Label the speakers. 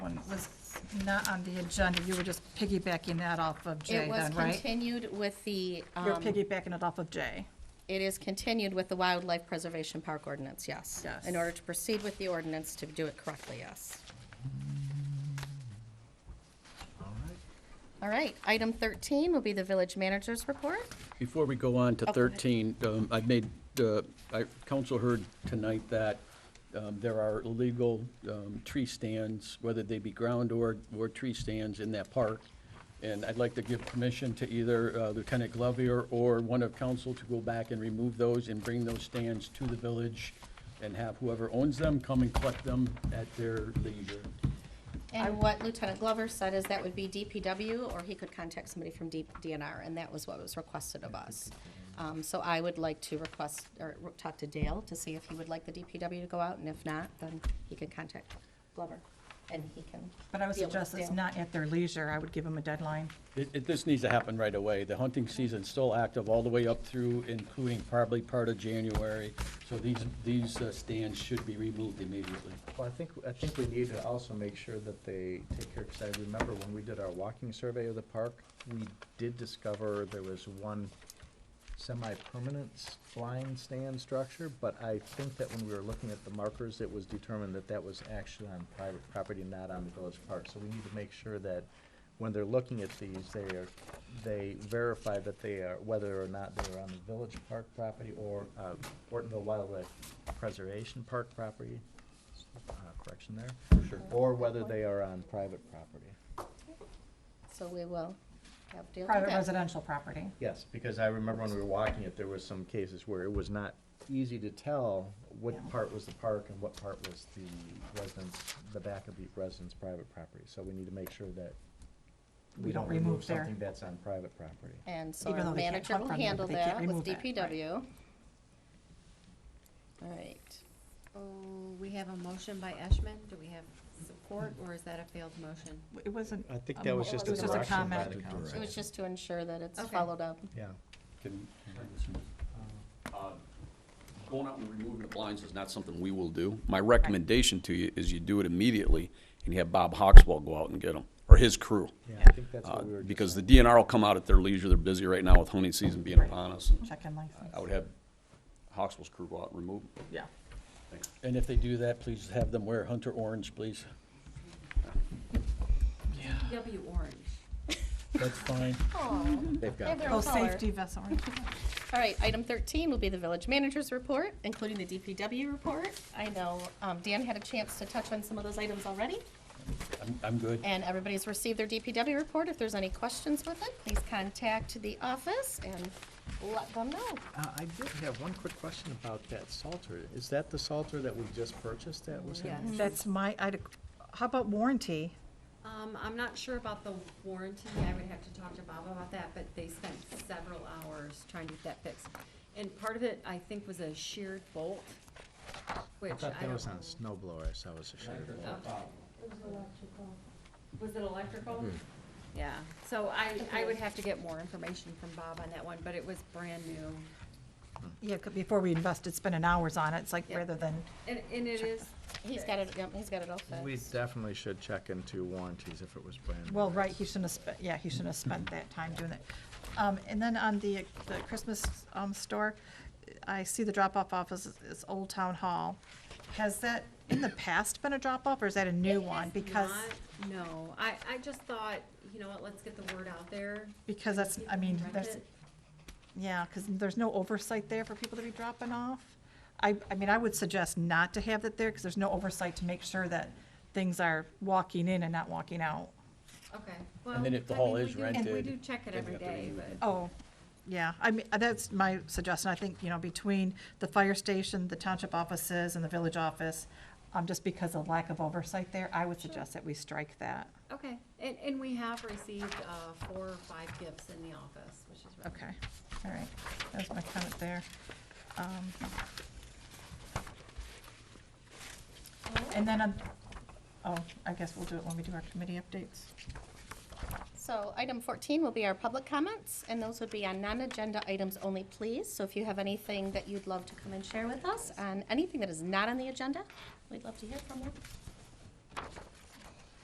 Speaker 1: was not on the agenda, you were just piggybacking that off of Jay
Speaker 2: It was
Speaker 1: then, right?
Speaker 2: continued with the,
Speaker 1: You're
Speaker 2: um,
Speaker 1: piggybacking it off of Jay.
Speaker 2: it is continued with the Wildlife Preservation Park ordinance, yes.
Speaker 1: Yes.
Speaker 2: In order to proceed with the ordinance to do it correctly, yes.
Speaker 3: All right.
Speaker 2: All right, item 13 will be the village manager's report.
Speaker 4: Before we go on to
Speaker 2: Oh, go ahead.
Speaker 4: 13, um, I made, uh, I- council heard tonight that um, there are illegal um, tree stands, whether they be ground or, or tree stands in that park. And I'd like to give permission to either uh, Lieutenant Glover or one of council to go back and remove those and bring those stands to the village and have whoever owns them come and collect them at their leisure.
Speaker 2: And what Lieutenant Glover said is that would be DPW, or he could contact somebody from D- DNR, and that was what was requested of us. Um, So I would like to request, or re- talk to Dale to see if he would like the DPW to go out, and if not, then he could contact Glover, and he can.
Speaker 1: But I would
Speaker 2: deal with
Speaker 1: suggest it's
Speaker 2: Dale.
Speaker 1: not at their leisure, I would give them a deadline.
Speaker 4: It, it, this needs to happen right away. The hunting season's still active all the way up through, including probably part of January. So these, these uh, stands should be removed immediately.
Speaker 3: Well, I think, I think we need to also make sure that they take care, because I remember when we did our walking survey of the park, we did discover there was one semi-permanent s- blind stand structure, but I think that when we were looking at the markers, it was determined that that was actually on private property, not on the village park. So we need to make sure that when they're looking at these, they are, they verify that they are, whether or not they're on the village park property or, uh, Ortonville Wildlife Preservation Park property, uh, correction there.
Speaker 4: Sure.
Speaker 3: Or whether they are on private property.
Speaker 2: So we will have Dale do
Speaker 1: Private
Speaker 2: that.
Speaker 1: residential property.
Speaker 3: Yes, because I remember when we were walking it, there was some cases where it was not easy to tell
Speaker 1: Yeah.
Speaker 3: what part was the park and what part was the residence, the back of the resident's private property. So we need to make sure that
Speaker 1: We don't remove there.
Speaker 3: something that's on private property.
Speaker 2: And so
Speaker 1: Even
Speaker 2: our
Speaker 1: though they can't
Speaker 2: manager
Speaker 1: cut
Speaker 2: will
Speaker 1: from them,
Speaker 2: handle
Speaker 1: but they can't
Speaker 2: that with
Speaker 1: remove that, right.
Speaker 2: DPW. All right.
Speaker 5: Oh, we have a motion by Eshman. Do we have support, or is that a failed motion?
Speaker 1: It wasn't.
Speaker 3: I think
Speaker 1: a
Speaker 3: that was
Speaker 1: mo-
Speaker 3: just
Speaker 1: it
Speaker 3: a
Speaker 1: was just
Speaker 3: direction by
Speaker 1: comment.
Speaker 3: the
Speaker 2: It
Speaker 3: council.
Speaker 2: was just to ensure that it's
Speaker 5: Okay.
Speaker 2: followed up.
Speaker 3: Yeah.
Speaker 4: Can-
Speaker 6: Going out and removing the blinds is not something we will do. My recommendation to you is you do it immediately and you have Bob Hawkswell go out and get them, or his crew.
Speaker 3: Yeah, I think that's
Speaker 6: Uh,
Speaker 3: what we were just
Speaker 6: Because the
Speaker 3: saying.
Speaker 6: DNR will come out at their leisure. They're busy right now with hunting season being upon us. and
Speaker 1: Check-in license.
Speaker 6: I would have Hawkswell's crew go out and remove them.
Speaker 1: Yeah.
Speaker 4: And if they do that, please have them wear hunter orange, please.
Speaker 5: W orange.
Speaker 4: That's fine.
Speaker 3: They've
Speaker 2: They have
Speaker 3: got
Speaker 2: their
Speaker 3: that.
Speaker 2: own
Speaker 1: Oh,
Speaker 2: color.
Speaker 1: safety vessel.
Speaker 2: Mm-hmm. All right, item thirteen will be the village manager's report, including the DPW report. I know um, Dan had a chance to touch on some of those items already,
Speaker 4: I'm, I'm good.
Speaker 2: and everybody's received their DPW report. If there's any questions with it, please contact the office and let them know.
Speaker 3: Uh, I did have one quick question about that Salter. Is that the Salter that we just purchased that was in?
Speaker 5: Yes.
Speaker 1: That's my, I'd, how about warranty?
Speaker 5: Um, I'm not sure about the warranty. I would have to talk to Bob about that, but they spent several hours trying to get that fixed. And part of it, I think, was a sheared bolt, which
Speaker 3: I
Speaker 5: I
Speaker 3: thought that
Speaker 5: don't
Speaker 3: was on
Speaker 5: know.
Speaker 3: a snow blower, so I was assured of that.
Speaker 5: Was it electrical?
Speaker 3: Mm-hmm.
Speaker 5: Yeah, so I, I would have to get more information from Bob on that one, but it was brand new.
Speaker 1: Yeah, 'cause before we invested, spending hours on it, it's like
Speaker 5: Yeah.
Speaker 1: rather than,
Speaker 5: And, and it is.
Speaker 2: He's got it, yep, he's got it all
Speaker 3: We
Speaker 2: fixed.
Speaker 3: definitely should check into warranties if it was brand new.
Speaker 1: well, right, he shouldn't have spent, yeah, he shouldn't have spent that time doing that. Um, and then on the, the Christmas, um, store, I see the drop-off office is- is Old Town Hall. Has that in the past been a drop-off or is that a new one?
Speaker 5: It's
Speaker 1: Because,
Speaker 5: not- No, I, I just thought, you know what, let's get the word out there.
Speaker 1: because that's, I mean,
Speaker 5: Rent
Speaker 1: there's,
Speaker 5: it.
Speaker 1: Yeah, because there's no oversight there for people to be dropping off. I, I mean, I would suggest not to have that there, because there's no oversight to make sure that things are walking in and not walking out.
Speaker 5: Okay, well.
Speaker 4: then if the
Speaker 5: I
Speaker 4: hall
Speaker 5: mean,
Speaker 4: is
Speaker 5: we do- and We
Speaker 4: rented,
Speaker 5: do check it
Speaker 4: then
Speaker 5: every
Speaker 4: you have to
Speaker 5: day,
Speaker 4: remove it.
Speaker 5: but,
Speaker 1: Oh, yeah, I mean, that's my suggestion, I think, you know, between the fire station, the township offices, and the village office, um, just because of lack of oversight there, I would suggest that we strike that.
Speaker 5: okay, and, and we have received, uh, four or five gifts in the office, which is. really
Speaker 1: Okay, all right, that's my comment there. Um, And then, on- oh, I guess we'll do it when we do our committee updates.
Speaker 2: So item fourteen will be our public comments, and those would be on non-agenda items only, please. So if you have anything that you'd love to come and share with us, and anything that is not on the agenda, we'd love to hear from you.